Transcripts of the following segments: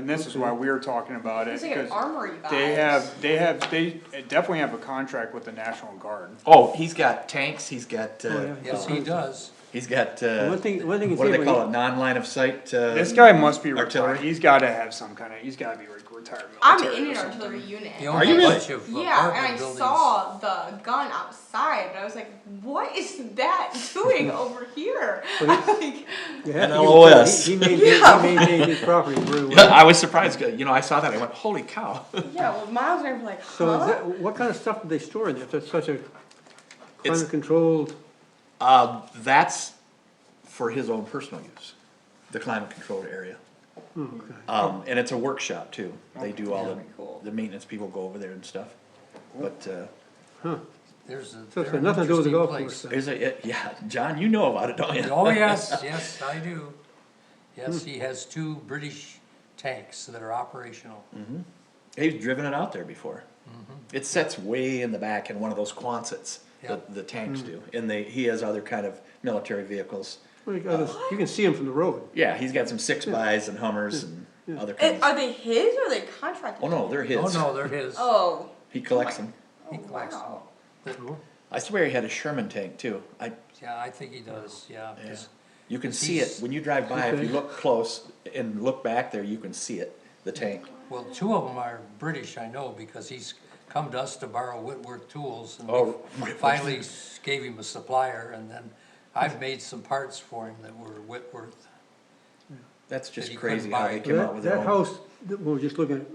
And this is why we were talking about it, It's like an because armory vibes. they have, they have, they definitely have a contract with the National Guard. Oh, he's got tanks, he's got, uh, Yes, he does. he's got, uh, Oh, One thing, one thing is. what do they call it, non-line of sight, uh? This guy must be Artillery. retired, he's gotta have some kind of, he's gotta be re- retired I'm military or in an something. artillery unit. The you only really? bunch of Yeah, and I apartment buildings. saw the gun outside, but I was like, "What is that doing over here?" like, you have An to give it to him. LOS. He he maintained, he maintained his property really Yeah, well. I was surprised, uh, you know, I saw that, I went, holy cow. yeah. Well, Miles and I were like, "Huh?" So is that, what kind of stuff do they store in there? If That's such a It's- climate controlled, Uh, that's for his own personal use, the climate controlled area. Oh, Um, and it's a workshop too, they do all Okay, cool. the, the maintenance people go over there and stuff, but, uh, There's a, so they're it's got an nothing to do with the interesting golf place. course. there's a, yeah, John, you know about it, don't you? Oh, yes, yes, I do. Yes, he has two British tanks that are operational. Oh, They've driven it out there before. Mm-hmm. It sets way in the back in one of those Quonsets Yep. that the Hmm. tanks do, and they he has other kind of military vehicles. Like others- You can see them from the road. Yeah, he's got some six bys and Hummers and other Eh, kinds. are they his or are they contracted? oh no, they're his. Oh, no, they're his. Oh. He collects them. He Oh, collects them. wow. I swear he had a Sherman tank too. I Yeah, I think he does, yeah. 'cause you can see it He's- when you drive by. If you Okay. look close and look back there, you can see it. The tank. Well, two of them are British, I know, because he's come to us to borrow Whitworth tools. and Oh, we Whitworth. Finally s- gave him a supplier, and then I've made some parts for him that were Whitworth. That's just he couldn't crazy how buy they it. came out That, with their that own. house, that we were just looking at,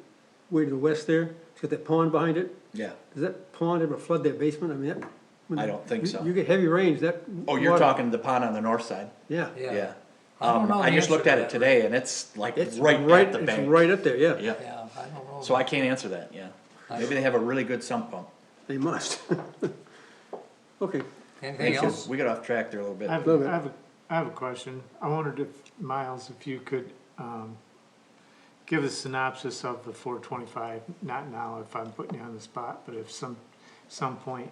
way to the west there, it's got that pond behind it. Yeah. Does that pond ever flood that basement? I mean, that. when I don't think you- so. You get heavy rains, that. Oh, you're water- talking the pond on the north side. Yeah. Yeah. I don't Um, know I the just answer looked to at it that. today and it's like It's right right, at the it's bank. right up there, yeah. Yeah, Yeah, I don't know. so I can't answer that, yeah. Maybe they have a really good sump pump. They must. Okay, Anything Thank you. else? We got off track there a little bit. I have, Love it. I have, a I have a question. I wondered if, Miles, if you could, um, give a synopsis of the four twenty-five, not now if I'm putting you on the spot, but if some, some point,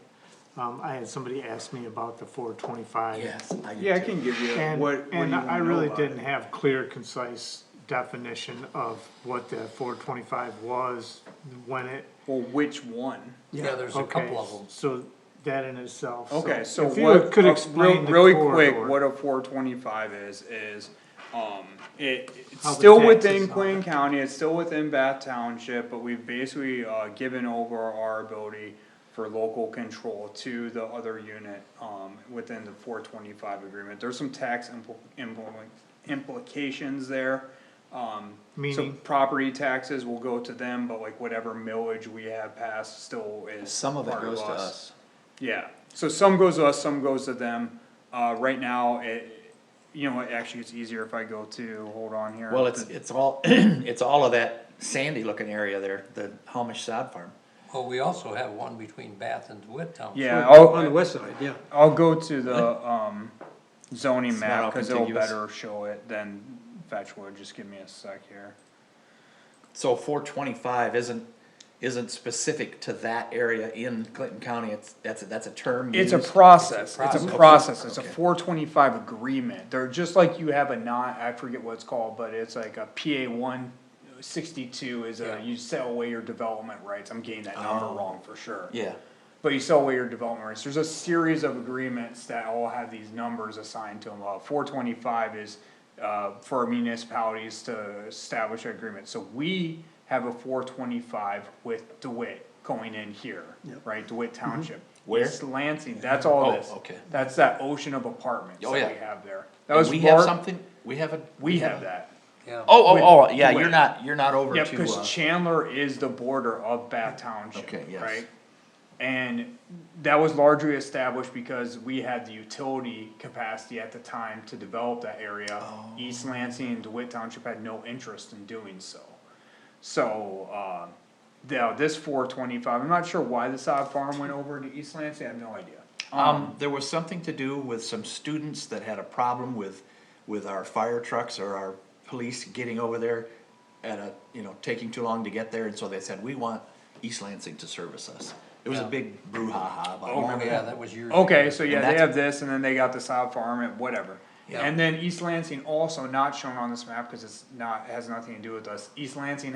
um, I had somebody ask me about the four twenty-five. Yes, I Yeah, I do too. can give you And, what, what do you and I know really about it? didn't have clear, concise definition of what the four twenty-five was, when it. Well, which one? Yeah, there's a okay, couple of them. So that in itself. Okay, so if you what, Could uh, explain real- the really corridor. quick, what a four twenty-five is, is, um, it, it's How the still taxes within on Queen County, it's still within Bath Township, but we've basically, uh, given over our ability for local control to the other unit, um, within the four twenty-five agreement. There's some tax impl- impl- implications there. Um, so Meaning? property taxes will go to them, but like whatever millage we have passed still is Some of it part goes to us. yeah, so some goes to us, some goes to them, uh, right now, it, you know, what, actually, it's easier if I go to, hold on here. Well, it's, it's all, it's all of that sandy looking area there, the Homish sod farm. Well, we also have one between Bath and DeWitt Township. Yeah, oh, on the I'll, west side, yeah. I'll go to the, um, zoning It's not all map, cause it'll contiguous. better show it than Fetchwood, just give me a sec here. So four twenty-five isn't, isn't specific to that area in Clinton County, it's, that's, a- that's a term It's a used. process, it's a process. process, it's a Okay. four twenty-five agreement, they're just like you have a non, I forget what it's called, but it's like a PA one sixty-two is Yeah. a, you sell away your development rights, I'm getting that number wrong for sure. Oh. Yeah, But you sell away your development rights. There's a series of agreements that all have these numbers assigned to them. Uh, four twenty-five is, uh, for municipalities to establish an agreement. So we have a four twenty-five with DeWitt going in here, right? DeWitt Township. Where? East Lansing, that's all Oh, this. okay. That's that ocean of apartments that Oh, we yeah. have there. That and was we have Bar- something, we have a. We have that. Yeah. Oh, oh, oh, yeah, Wait. you're not, you're not over Yeah, to, uh, because Chandler is the border of Bath Township, Okay, yes. right? And that was largely established because we had the utility capacity at the time to develop that area. Oh. East Lansing and DeWitt Township had no interest in doing so. So, uh, now this four twenty-five, I'm not sure why the sod farm went over to East Lansing, I have no idea. Um, there was something to do with some students that had a problem with, with our fire trucks or our police getting over there at a, you know, taking too long to get there, and so they said, we want East Lansing to service us. It was a Yeah. big brouhaha about Oh, it. yeah, that was yours. Oh, Okay, so yeah, they that's- have this and then they got the sod farm and whatever. Yeah. And then East Lansing also not shown on this map, cause it's not, it has nothing to do with us, East Lansing